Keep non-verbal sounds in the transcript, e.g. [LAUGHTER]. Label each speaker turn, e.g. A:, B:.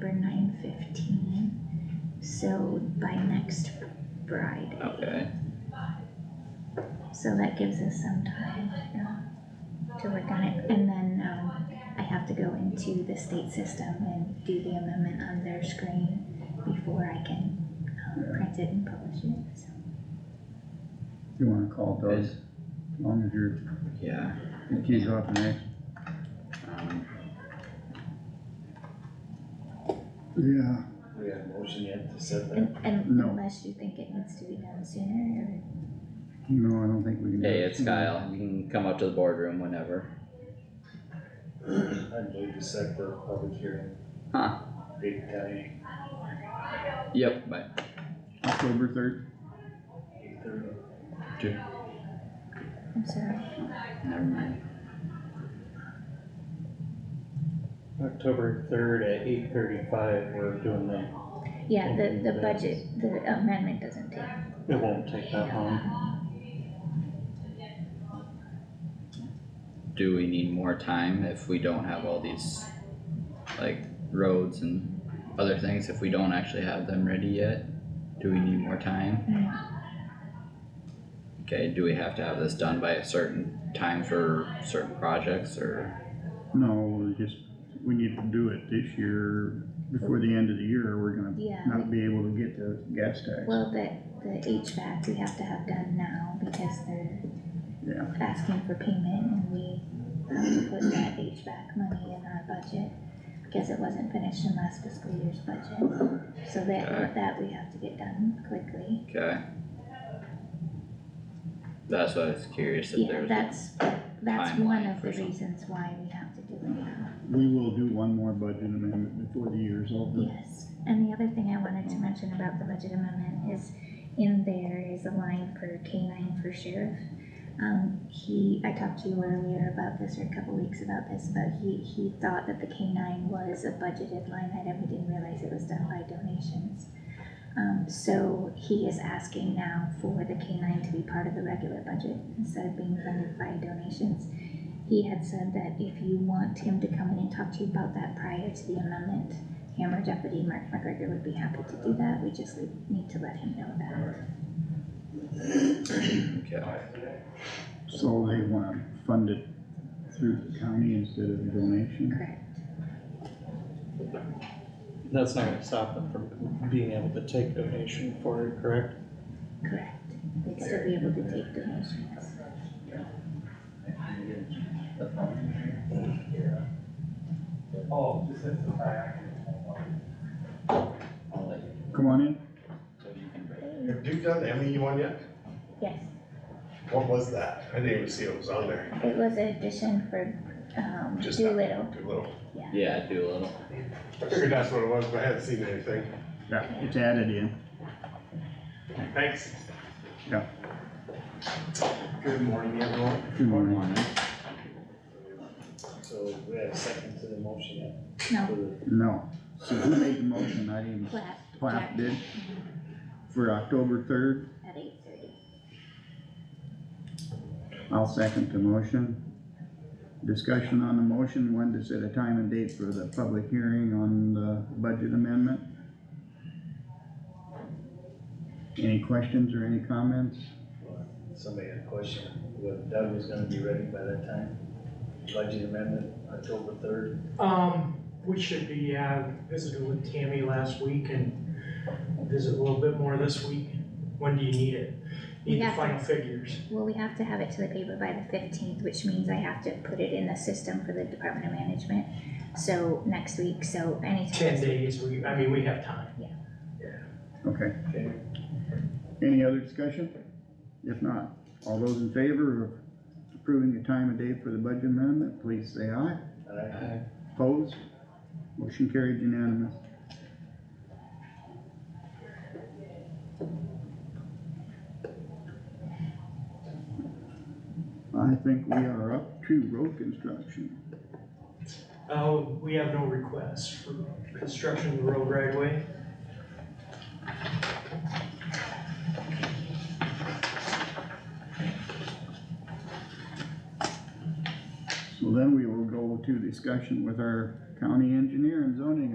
A: for nine fifteen. So by next Friday,
B: Okay,
A: so that gives us some time, uh, to work on it, and then, um, I have to go into the state system and do the amendment on their screen before I can, um, print it and publish it, so.
C: You wanna call Doug, as long as you're,
B: yeah,
C: if he's off next.
B: um,
C: Yeah.
D: We have a motion yet to set that?
A: And, and
C: No.
A: unless you think it needs to be done sooner, or.
C: No, I don't think we can. do
B: hey,
C: it.
B: it's Kyle, you can come up to the boardroom whenever.
D: I believe to set the public hearing.
B: Huh.
D: Date and time,
B: Yep, bye.
C: October third,
D: eight thirty.
A: I'm sorry.
B: Never mind.
E: October third at eight thirty-five, we're doing that.
A: Yeah, the,
E: Okay,
A: the
E: that's-
A: budget, the amendment doesn't take,
E: It won't take that long.
B: Do we need more time if we don't have all these, like, roads and other things, if we don't actually have them ready yet? Do we need more time?
A: no.
B: Okay, do we have to have this done by a certain time for certain projects, or,
C: no, we just, we need to do it this year, before the end of the year, or we're gonna
A: yeah,
C: not be able to get the gas tax.
A: well, the, the HVAC we have to have done now because they're
C: Yeah.
A: asking for payment and we have to put that HVAC money in our budget because it wasn't finished in last fiscal year's budget, so
B: Okay.
A: that, that we have to get done quickly.
B: okay? That's why I was curious if there
A: Yeah,
B: was.
A: that's,
B: a-
A: that's one
B: timeline
A: of
B: for
A: the
B: some-
A: reasons why we have to do it now.
C: We will do one more budget amendment before the year's over.
A: Yes, and the other thing I wanted to mention about the budget amendment is in there is a line for K nine for sheriff. Um, he, I talked to you earlier about this or a couple weeks about this, but he, he thought that the K nine was a budgeted line item. He didn't realize it was done by donations. Um, so he is asking now for the K nine to be part of the regular budget instead of being funded by donations. He had said that if you want him to come in and talk to you about that prior to the amendment, Hammer Deputy Mark McGregor would be happy to do that, we just need to let him know that.
B: [CLEARS THROAT] Okay,
C: So they wanna fund it through the county instead of donation.
A: Correct.
E: That's not gonna stop them from being able to take donation for it, correct?
A: Correct. They'd still be able to take donations.
B: I'll let you,
C: Come on in,
B: so you can break.
D: Have you done the ME one yet?
A: Yes,
D: What was that? I didn't even see it was on there.
A: it was an addition for, um,
D: Just that-
A: Doolittle.
D: Too little.
B: Yeah, do a little.
D: I figured that's what it was, but I hadn't seen anything.
C: yeah, it's added in.
D: Thanks.
C: Yeah.
D: Good morning, everyone.
C: Good morning.
D: So we have a second to the motion yet?
A: No,
C: No, so who made the motion, not even
A: flat
C: Plath did? For October third,
A: at eight thirty.
C: I'll second the motion. Discussion on the motion, when to set a time and date for the public hearing on the budget amendment? Any questions or any comments?
D: Somebody had a question, whether Doug was gonna be ready by that time? Budget amendment, October third.
F: Um, we should be, uh, visited with Tammy last week and visit a little bit more this week. When do you need it? Need
A: We
F: the
A: have to-
F: final figures.
A: Well, we have to have it to the paper by the fifteenth, which means I have to put it in the system for the Department of Management. So next week, so anytime.
F: Ten days, we, I mean, we have time.
C: Okay.
D: Okay.
C: Any other discussion? If not, all those in favor of approving the time and date for the budget amendment, please say aye. Opposed? Motion carried unanimous. I think we are up to road construction.
F: Uh, we have no requests for construction of the road right away.
C: So then we will go to discussion with our county engineer and zoning